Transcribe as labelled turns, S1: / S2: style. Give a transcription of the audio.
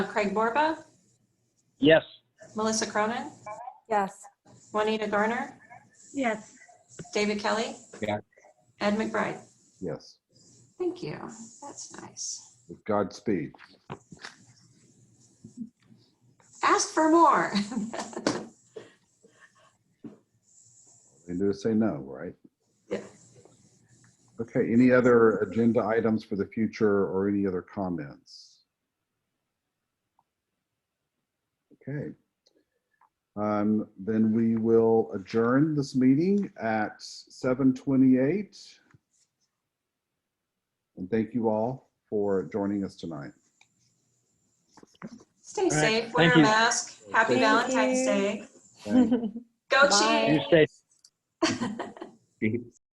S1: Craig Borba,
S2: Yes.
S1: Melissa Cronin,
S3: Yes.
S1: Juanita Garner,
S3: Yes.
S1: David Kelly.
S4: Yeah.
S1: Ed McBride.
S4: Yes,
S1: Thank you. That's nice.
S4: with Godspeed.
S1: Ask for more.
S4: They do say no, right?
S1: Yeah.
S4: Okay, any other agenda items for the future or any other comments? Okay. Um, Then we will adjourn this meeting at 7:28. And thank you all for joining us tonight.
S1: Stay
S2: right.
S1: safe,
S2: Thank
S1: wear a
S2: you.
S1: mask. Happy
S3: Thank
S1: Valentine's
S3: you.
S1: Day.
S4: Thank
S1: Go
S3: Bye.
S2: You
S1: Chiefs.
S2: stay
S4: you.